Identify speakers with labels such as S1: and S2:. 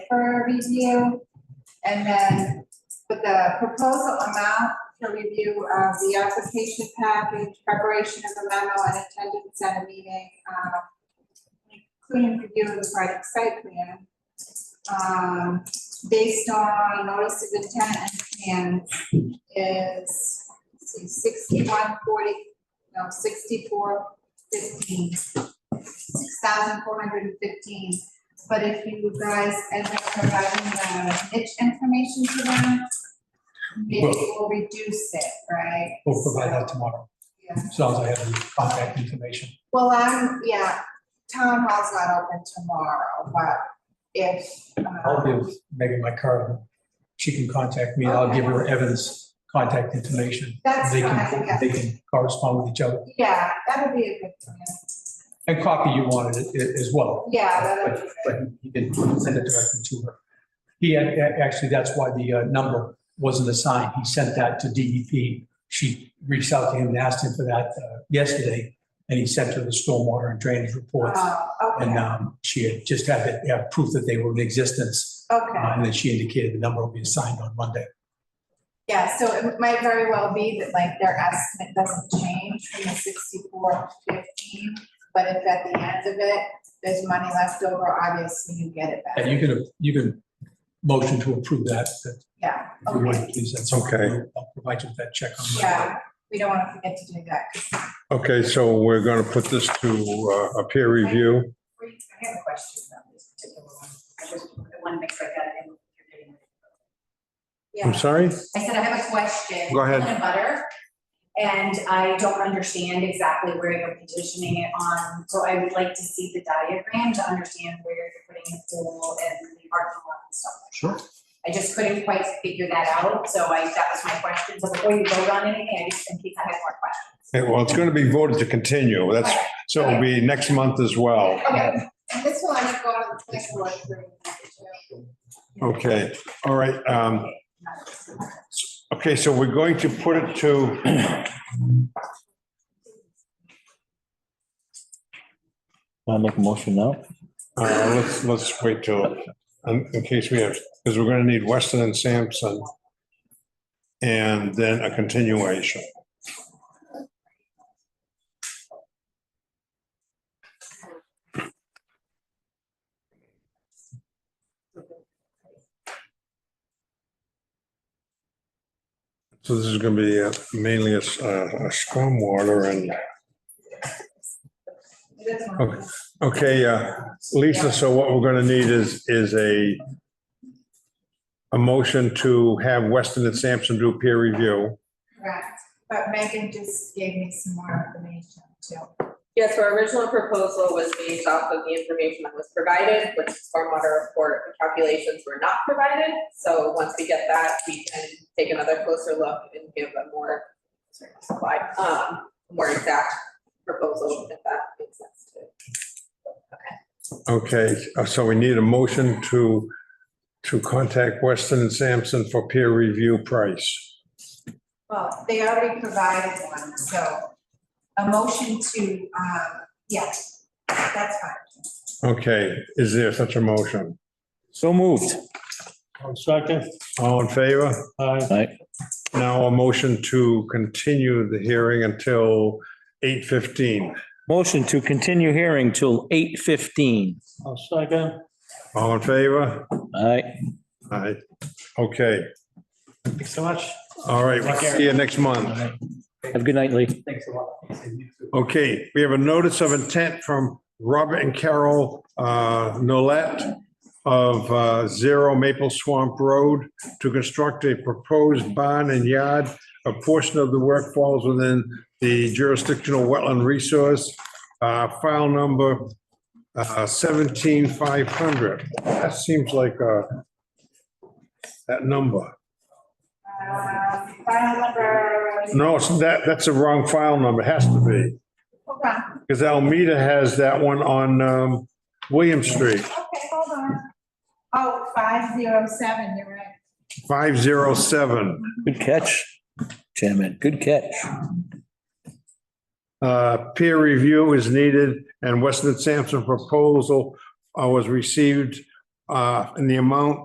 S1: review. And then with the proposal amount for review of the application package, preparation of a memo and attendance at a meeting, uh, including review of the project site plan. Um, based on notice of intent and plans is, let's see, sixty-one forty, no, sixty-four fifteen. Six thousand four hundred and fifteen, but if you guys end up providing the niche information to them, maybe we'll reduce it, right?
S2: We'll provide that tomorrow,
S1: Yeah,
S2: as long as I have the contact information.
S1: well, I'm, yeah, town hall's not open tomorrow, but if,
S2: I'll
S1: um,
S2: give Megan my card. She can contact me. I'll give her Evan's contact information.
S1: that's
S2: They
S1: fine,
S2: can,
S1: yeah,
S2: they can correspond with each other.
S1: yeah, that would be a good plan,
S2: And copy you wanted it i- as well.
S1: yeah, that would be
S2: But
S1: good.
S2: but he didn't send it directly to her. He, had- a- actually, that's why the uh, number wasn't assigned. He sent that to DEP. She reached out to him and asked him for that uh, yesterday. And he sent her the stormwater and drainage reports.
S1: Oh,
S2: And
S1: okay,
S2: um, she had just had it, yeah, proof that they were in existence.
S1: okay.
S2: Uh, And then she indicated the number will be assigned on Monday.
S1: Yeah, so it might very well be that like their estimate doesn't change from the sixty-four to fifteen, but if at the end of it, there's money left over, obviously you get it
S2: And
S1: back.
S2: you can, you can motion to approve that, that
S1: Yeah,
S2: if you
S1: okay,
S2: would, please. That's
S3: Okay.
S2: I'll provide you with that check on Monday.
S1: yeah, we don't wanna forget to do that. 'cause
S3: Okay, so we're going to put this to uh, a peer review.
S1: we- I have a question about this particular one.
S4: I just want to make sure I got it in. what you're getting.
S3: I'm
S1: Yeah,
S3: sorry?
S4: I said I have a question.
S3: Go ahead.
S4: Peanut butter, and I don't understand exactly where you're positioning it on, so I would like to see the diagram to understand where you're putting the pool and the parking lot and stuff.
S2: Sure.
S4: I just couldn't quite figure that out, so I, that was my question, so before you vote on anything, I just, in case I had more questions.
S3: Okay, Well, it's going to be voted to continue. That's, so it'll be next month as well.
S4: Okay,
S1: and this will end up going to the planning board for,
S3: Okay, all right. um,
S4: okay.
S3: Okay, so we're going to put it to,
S5: I'll make a motion now.
S3: uh, let's, let's wait till, um, in case we have, because we're going to need Weston and Sampson. And then a continuation. So this is going to be uh, mainly a s- uh, a stormwater and,
S1: it doesn't
S3: Okay. okay, uh, Lisa, so what we're going to need is, is a, a motion to have Weston and Sampson do peer review.
S1: correct, but Megan just gave me some more information too.
S6: Yes, our original proposal was based off of the information that was provided, which is stormwater report, the calculations were not provided. So once we get that, we can take another closer look and give a more, sorry, slide, um, more exact proposal if that makes sense to.
S3: Okay, uh, so we need a motion to, to contact Weston and Sampson for peer review price.
S1: Well, they already provided one, so a motion to, um, yeah, that's fine.
S3: Okay, is there such a motion?
S5: So moved.
S3: Second. All in favor? Aye.
S5: Aye.
S3: Now a motion to continue the hearing until eight fifteen.
S5: Motion to continue hearing till eight fifteen.
S3: All in favor?
S5: Aye.
S3: Aye. Okay,
S2: Thanks so much.
S3: all right, we'll see you next month.
S5: Have a good night, Lee.
S2: Thanks a lot.
S3: Okay, we have a notice of intent from Robert and Carol uh, Nolet of uh, Zero Maple Swamp Road to construct a proposed barn and yard. A portion of the work falls within the jurisdictional wetland resource, uh, file number uh, 17500. That seems like uh, that number.
S1: Um, File number,
S3: No, it's- that, that's the wrong file number, It has to be.
S1: hold on,
S3: Because Almeida has that one on um, William Street,
S1: okay, hold on. Oh, five zero seven, you're right.
S3: 507.
S5: Good catch, Chairman. Good catch.
S3: Uh, Peer review is needed, and Weston and Sampson proposal uh, was received uh, in the amount